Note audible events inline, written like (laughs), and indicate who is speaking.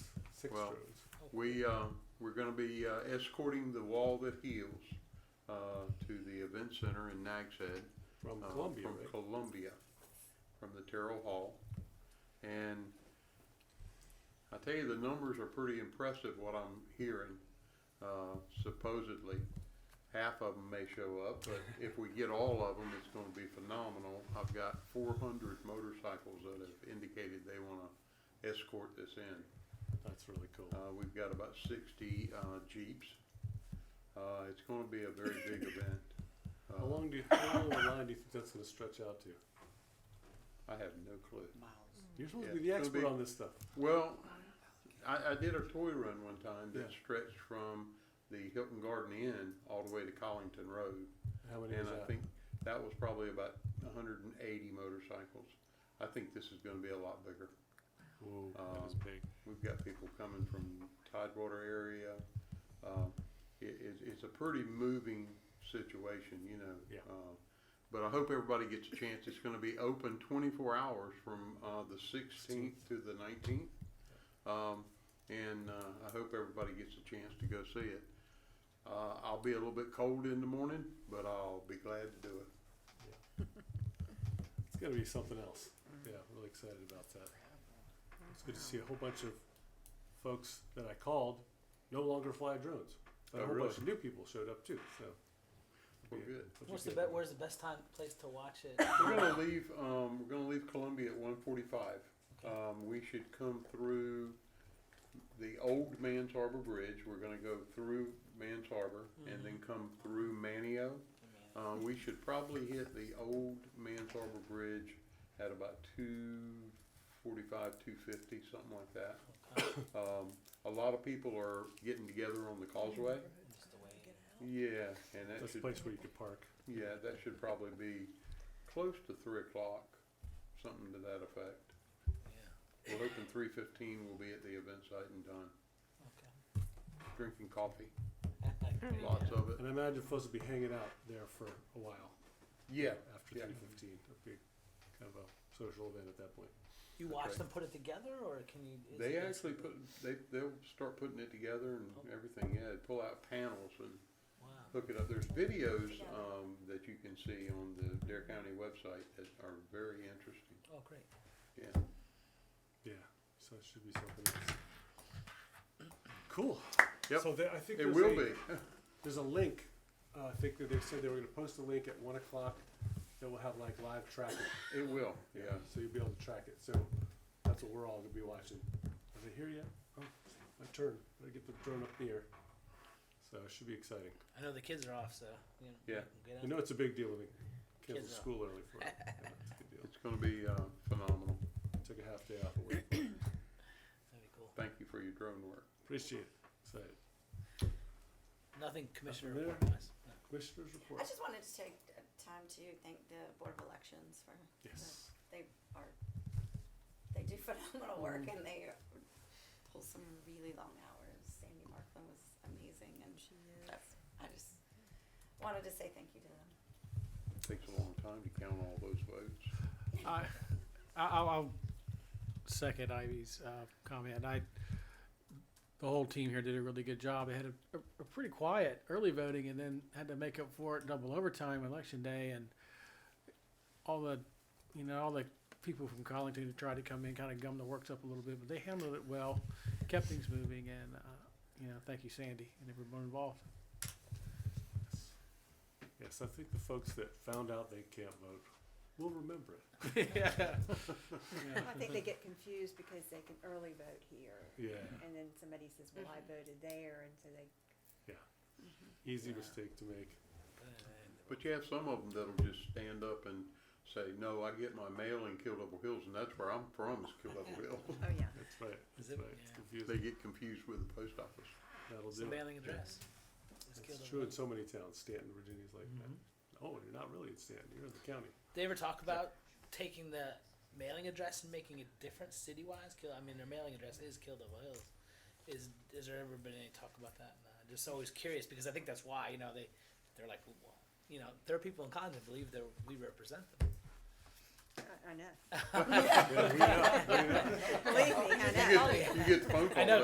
Speaker 1: Six
Speaker 2: Well,
Speaker 1: roads.
Speaker 2: We, uh, we're gonna be uh, escorting the wall that heals, uh, to the event center in Nags Head.
Speaker 1: From
Speaker 2: uh,
Speaker 1: Columbia,
Speaker 2: From
Speaker 1: right?
Speaker 2: Columbia, from the Terrell Hall. And I tell you, the numbers are pretty impressive, what I'm hearing. Uh, supposedly, half of them may show
Speaker 1: (laughs)
Speaker 2: up, but if we get all of them, it's gonna be phenomenal. I've got four hundred motorcycles that have indicated they wanna escort this in.
Speaker 1: That's really cool.
Speaker 2: Uh, we've got about sixty, uh, Jeeps. Uh, it's gonna be a very
Speaker 1: (coughs)
Speaker 2: big event.
Speaker 1: How
Speaker 2: Uh,
Speaker 1: long do you, how long of a line do you think that's gonna stretch out to?
Speaker 2: I have no clue.
Speaker 3: miles.
Speaker 1: You're supposed to
Speaker 2: Yeah,
Speaker 1: be the
Speaker 2: it's gonna
Speaker 1: expert
Speaker 2: be-
Speaker 1: on this stuff.
Speaker 2: Well, I, I did a toy run one time that
Speaker 1: Yeah.
Speaker 2: stretched from the Hilton Garden Inn all the way to Collington Road.
Speaker 1: How many is
Speaker 2: And I
Speaker 1: that?
Speaker 2: think that was probably about hundred and eighty motorcycles. I think this is gonna be a lot bigger.
Speaker 1: Whoa,
Speaker 2: um,
Speaker 1: that is big.
Speaker 2: We've got people coming from Tidewater area. Um, It, it's, it's a pretty moving situation, you know.
Speaker 1: Yeah.
Speaker 2: Uh, But I hope everybody gets a chance. It's gonna be open twenty-four hours from, uh, the sixteenth to the nineteenth. Um, and, uh, I hope everybody gets a chance to go see it. Uh, I'll be a little bit cold in the morning, but I'll be glad to do it.
Speaker 1: It's gonna be something else. Yeah, really excited about that. It's good to see a whole bunch of folks that I called no longer fly drones. But
Speaker 2: Oh,
Speaker 1: a whole
Speaker 2: really?
Speaker 1: bunch of new people showed up too, so.
Speaker 2: Well,
Speaker 1: Yeah,
Speaker 2: good.
Speaker 1: which is
Speaker 3: What's the
Speaker 1: good.
Speaker 3: be- where's the best time place to watch (laughs) it?
Speaker 2: We're gonna leave, um, we're gonna leave Columbia at one forty-five. Um, we should come through the old Mans Harbor Bridge. We're gonna go through Mans Harbor and then come through Manio. Uh, we should probably hit the old Mans Harbor Bridge at about two forty-five, two fifty, something like that.
Speaker 3: Okay.
Speaker 2: Um, a lot of people are getting together on the causeway.
Speaker 3: Just the way.
Speaker 2: Yeah, and that
Speaker 1: That's a
Speaker 2: should
Speaker 1: place where you could park.
Speaker 2: yeah, that should probably be close to three o'clock, something to that effect.
Speaker 3: Yeah.
Speaker 2: We're hoping three fifteen will be at the event site and done, drinking coffee,
Speaker 3: Okay.
Speaker 2: lots of it.
Speaker 1: And I imagine folks will be hanging out there for a while
Speaker 2: Yeah,
Speaker 1: after
Speaker 2: yeah.
Speaker 1: three fifteen. It'd be kind of a social event at that point.
Speaker 3: You watch
Speaker 2: Okay.
Speaker 3: them put it together, or can you? is
Speaker 2: They
Speaker 3: it-
Speaker 2: actually put, they, they'll start putting it together and everything, yeah, pull out panels and
Speaker 3: Wow.
Speaker 2: hook it up. There's videos, um, that you can see on the Dare County website that are very interesting,
Speaker 3: Oh, great.
Speaker 2: yeah.
Speaker 1: Yeah, so it should be something else. Cool.
Speaker 2: Yep.
Speaker 1: So there, I think
Speaker 2: It
Speaker 1: there's
Speaker 2: will
Speaker 1: a-
Speaker 2: be,
Speaker 1: There's a link. Uh, I think that they said they were going to post a link at one o'clock that will have like live tracking.
Speaker 2: (laughs) it will, yeah.
Speaker 1: So you'll be able to track it. So that's what we're all going to be watching. Is it here yet? Oh, my turn. I get the drone up in the air. So it should be exciting.
Speaker 3: I know the kids are off, so you know.
Speaker 2: Yeah.
Speaker 3: can Get out.
Speaker 1: You know, it's a big deal when we cancel
Speaker 3: Kids are-
Speaker 1: school early
Speaker 3: (laughs)
Speaker 1: for it. Yeah, it's a good deal.
Speaker 2: It's gonna be, uh, phenomenal.
Speaker 1: Took a half day off of work.
Speaker 3: That'd be cool.
Speaker 2: Thank you for your drone work.
Speaker 1: Appreciate it. Excited.
Speaker 3: Nothing, Commissioner.
Speaker 1: there.
Speaker 3: report (laughs) wise. No.
Speaker 1: Commissioners report.
Speaker 4: I just wanted to take uh, time to thank the Board of Elections for. the-
Speaker 1: Yes.
Speaker 4: They are, they do (laughs) phenomenal work
Speaker 5: Mm.
Speaker 4: and they pull some really long hours. Sandy Markland was amazing and she is. I just wanted to say thank you to them.
Speaker 2: It takes a long time to count all those votes.
Speaker 6: I, I- I'll, I'll second Ivy's uh, comment. I, the whole team here did a really good job. They had a, a, a pretty quiet early voting, and then had to make up for it double overtime election day, and all the, you know, all the people from Collington who tried to come in kind of gummed the works up a little bit, but they handled it well, kept things moving, and uh, you know, thank you Sandy and everyone involved.
Speaker 1: Yes, I think the folks that found out they can't vote will remember it.
Speaker 3: uh,
Speaker 6: yeah.
Speaker 5: (laughs) I think they get confused because they can early vote here,
Speaker 1: Yeah.
Speaker 5: and then somebody says, well,
Speaker 4: Mm-hmm.
Speaker 5: I voted there, and so they
Speaker 1: Yeah. Easy
Speaker 3: Yeah.
Speaker 1: mistake to make.
Speaker 3: Good.
Speaker 2: But you have some of them that'll just stand up and say, no, I get my mail in Kill Double Hills, and that's where I'm from is Kill Double Hills.
Speaker 4: Oh, yeah.
Speaker 1: That's right.
Speaker 3: Is
Speaker 1: That's
Speaker 3: it-
Speaker 1: right. It's
Speaker 3: yeah.
Speaker 1: confusing.
Speaker 2: They get confused with the post office.
Speaker 1: That'll
Speaker 3: It's the
Speaker 1: do. it.
Speaker 3: mailing address. Let's kill
Speaker 1: It's
Speaker 3: them.
Speaker 1: true in so many towns. Stanton, Virginia's like
Speaker 3: Mm-hmm.
Speaker 1: that. Oh, you're not really in Stanton. You're in the county.
Speaker 3: (laughs) They ever talk about taking the mailing address and making it different city wise? Kill I mean their mailing address is Kildare Hills. Is is there ever been any talk about that? No, I'm just always curious because I think that's why, you know, they they're like well, you know, there are people in Congress that believe that we represent them.
Speaker 5: I, I know.
Speaker 1: (laughs)
Speaker 4: (laughs)
Speaker 1: Yeah, we know.
Speaker 5: Believe me, I know.
Speaker 2: You get, you get the phone call.
Speaker 3: I know,